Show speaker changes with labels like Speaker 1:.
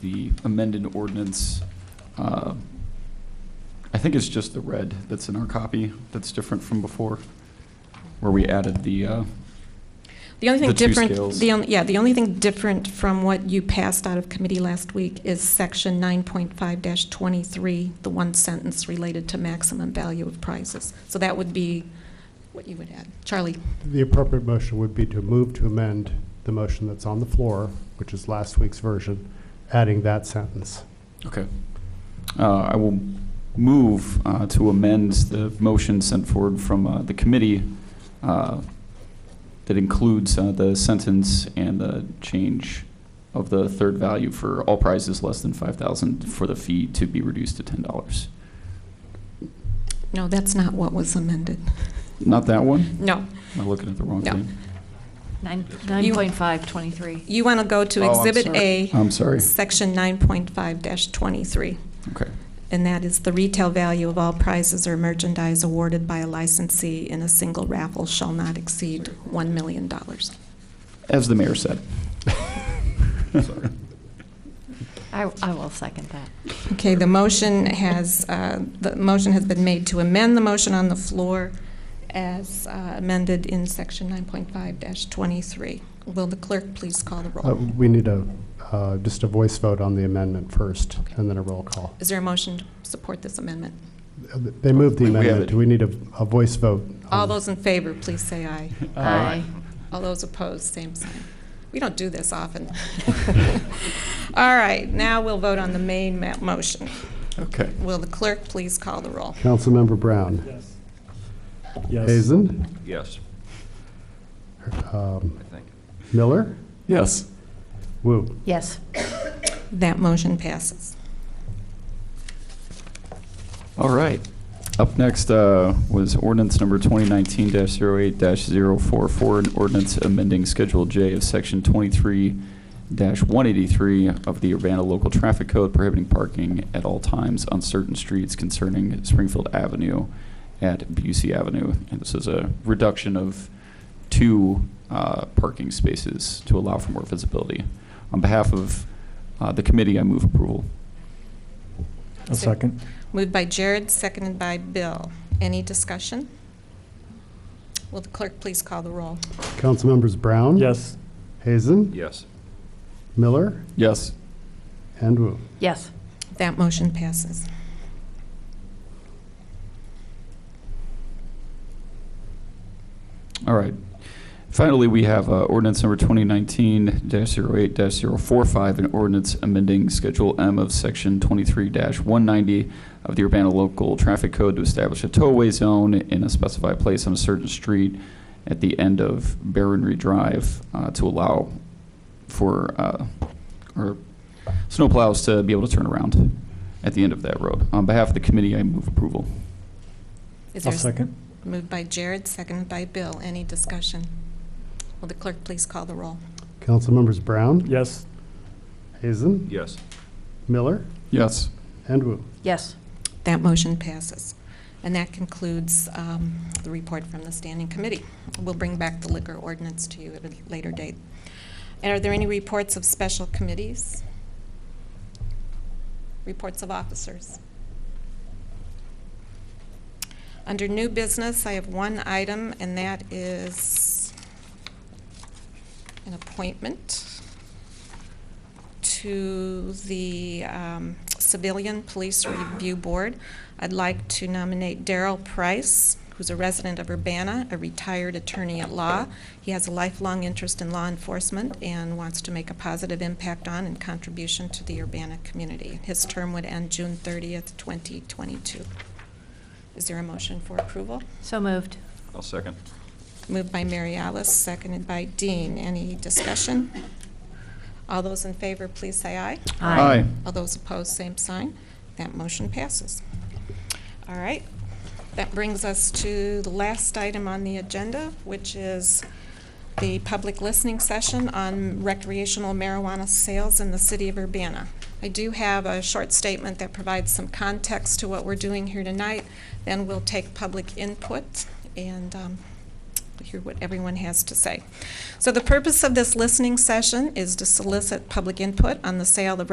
Speaker 1: the amended ordinance. Uh, I think it's just the red that's in our copy that's different from before, where we added the, uh,
Speaker 2: The only thing
Speaker 1: The two
Speaker 2: different,
Speaker 1: scales.
Speaker 2: the only, yeah, the only thing different from what you passed out of committee last week is section nine point five twenty-three, the one sentence related to maximum value of prizes. So that would be what you would add. Charlie?
Speaker 3: The appropriate motion would be to move to amend the motion that's on the floor, which is last week's version, adding that sentence.
Speaker 1: okay. Uh, I will move uh, to amend the motion sent forward from uh, the committee uh, that includes uh, the sentence and the change of the third value for all prizes less than 5,000 for the fee to be reduced to $10.
Speaker 2: No, that's not what was amended.
Speaker 1: Not that one?
Speaker 2: No.
Speaker 1: Am I looking at the wrong
Speaker 2: No.
Speaker 1: thing?
Speaker 4: Nine, nine point five, twenty-three.
Speaker 2: You want to go to
Speaker 1: Oh, I'm
Speaker 2: Exhibit
Speaker 1: sorry.
Speaker 2: A,
Speaker 1: I'm sorry.
Speaker 2: section nine point five twenty-three.
Speaker 1: Okay.
Speaker 2: And that is the retail value of all prizes or merchandise awarded by a licensee in a single raffle shall not exceed one million dollars.
Speaker 1: As the mayor said.
Speaker 4: I, I will second that.
Speaker 2: Okay, the motion has, uh, the motion has been made to amend the motion on the floor as uh, amended in section 9.5-23. Will the clerk please call the
Speaker 3: Uh,
Speaker 2: roll?
Speaker 3: We need a, uh, just a voice vote on the amendment first,
Speaker 2: Okay.
Speaker 3: and then a roll call.
Speaker 2: Is there a motion to support this amendment?
Speaker 3: Uh, They moved the
Speaker 1: We- we have
Speaker 3: amendment.
Speaker 1: it.
Speaker 3: Do we need a, a voice vote?
Speaker 2: All
Speaker 3: on-
Speaker 2: those in favor, please say aye.
Speaker 4: Aye.
Speaker 2: All those opposed, same sign. We don't do this often. All right, now we'll vote on the main ma- motion.
Speaker 1: Okay.
Speaker 2: Will the clerk please call the roll?
Speaker 3: Councilmember Brown.
Speaker 5: Yes.
Speaker 3: Hazen.
Speaker 6: Yes,
Speaker 3: um,
Speaker 6: I think.
Speaker 3: Miller.
Speaker 1: Yes.
Speaker 3: Woo.
Speaker 4: Yes.
Speaker 2: That motion passes.
Speaker 1: All right. Up next uh, was ordinance number 2019-08-044, an ordinance amending Schedule J of Section 23-183 of the Urbana Local Traffic Code prohibiting parking at all times on certain streets concerning Springfield Avenue at Busey Avenue. And this is a reduction of two uh, parking spaces to allow for more visibility. On behalf of uh, the committee, I move approval.
Speaker 5: A second.
Speaker 2: Moved by Jared, seconded by Bill. Any discussion? Will the clerk please call the roll?
Speaker 3: Councilmembers Brown.
Speaker 5: Yes.
Speaker 3: Hazen.
Speaker 6: Yes.
Speaker 3: Miller.
Speaker 1: Yes.
Speaker 3: And Woo.
Speaker 4: Yes.
Speaker 2: That motion passes.
Speaker 1: All right. Finally, we have uh, ordinance number 2019-08-045, an ordinance amending Schedule M of Section 23-190 of the Urbana Local Traffic Code to establish a tollway zone in a specified place on a certain street at the end of Baronry Drive uh, to allow for, uh, or snowplows to be able to turn around at the end of that road. On behalf of the committee, I move approval.
Speaker 2: Is
Speaker 5: A
Speaker 2: there-
Speaker 5: second.
Speaker 2: Moved by Jared, seconded by Bill. Any discussion? Will the clerk please call the roll?
Speaker 3: Councilmembers Brown.
Speaker 5: Yes.
Speaker 3: Hazen.
Speaker 6: Yes.
Speaker 3: Miller.
Speaker 1: Yes.
Speaker 3: And Woo.
Speaker 4: Yes.
Speaker 2: That motion passes. And that concludes um, the report from the standing committee. We'll bring back the liquor ordinance to you at a later date. And are there any reports of special committees? Reports of officers? Under new business, I have one item, and that is an appointment to the um, Civilian Police Review Board. I'd like to nominate Daryl Price, who's a resident of Urbana, a retired attorney at law. He has a lifelong interest in law enforcement and wants to make a positive impact on and contribution to the Urbana community. His term would end June 30th, 2022. Is there a motion for approval?
Speaker 4: So moved.
Speaker 6: I'll second.
Speaker 2: Moved by Mary Alice, seconded by Dean. Any discussion? All those in favor, please say aye.
Speaker 1: Aye.
Speaker 2: All those opposed, same sign. That motion passes. All right. That brings us to the last item on the agenda, which is the public listening session on recreational marijuana sales in the city of Urbana. I do have a short statement that provides some context to what we're doing here tonight. Then we'll take public input and um, hear what everyone has to say. So the purpose of this listening session is to solicit public input on the sale of